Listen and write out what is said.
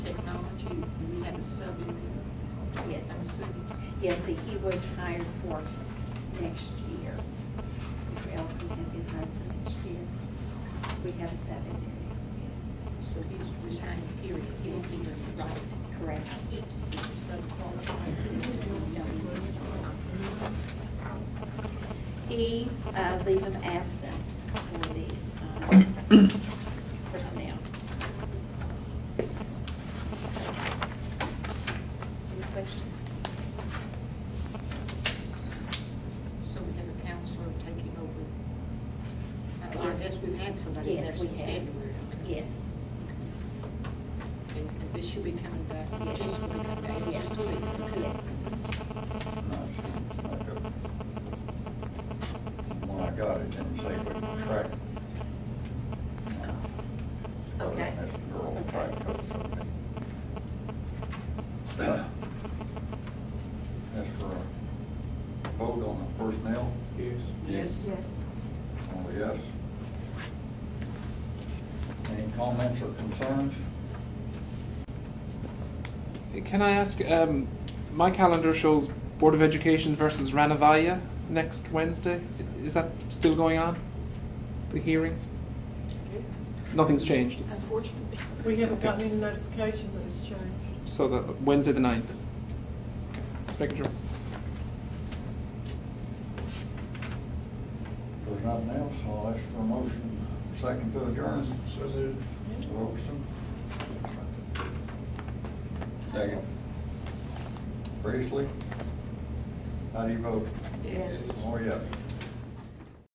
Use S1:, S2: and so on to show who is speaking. S1: Yes. Yes, see, he was hired for next year. Mr. Ellison had been hired for next year. We have a seven year.
S2: So he's resigning, period, he won't be here, right?
S1: Yes, correct.
S2: He's so qualified.
S1: E, uh, leave of absence for the um, personnel. Any questions?
S2: So we have a counselor taking over. I- I
S1: Yes.
S2: guess we've had somebody there
S1: Yes, we
S2: since
S1: have.
S2: February. I mean,
S1: Yes.
S2: And and this should be coming back,
S1: Yes.
S2: just when it comes back,
S1: Yes.
S2: just a week.
S1: Yes.
S3: When I got it, didn't say we could track. it.
S1: Okay.
S3: That's the girl
S1: Okay.
S3: track coach, okay. As for a vote on the personnel,
S4: Yes.
S2: Yes.
S3: only yes. Any comments or concerns?
S5: Can I ask? Um, my calendar shows Board of Education versus Ranavaya next Wednesday. I- Is that still going on? The hearing? Nothing's changed. It's,
S6: Unfortunately, we haven't gotten any notification that it's changed.
S5: so that Wednesday the 9th. Okay, just making sure.
S3: If There's nothing else, I'll ask for a motion, second to adjourn.
S4: So moved.
S3: Wilson. Second. Priestley? How do you vote?
S2: Yes.
S3: Oh, yeah.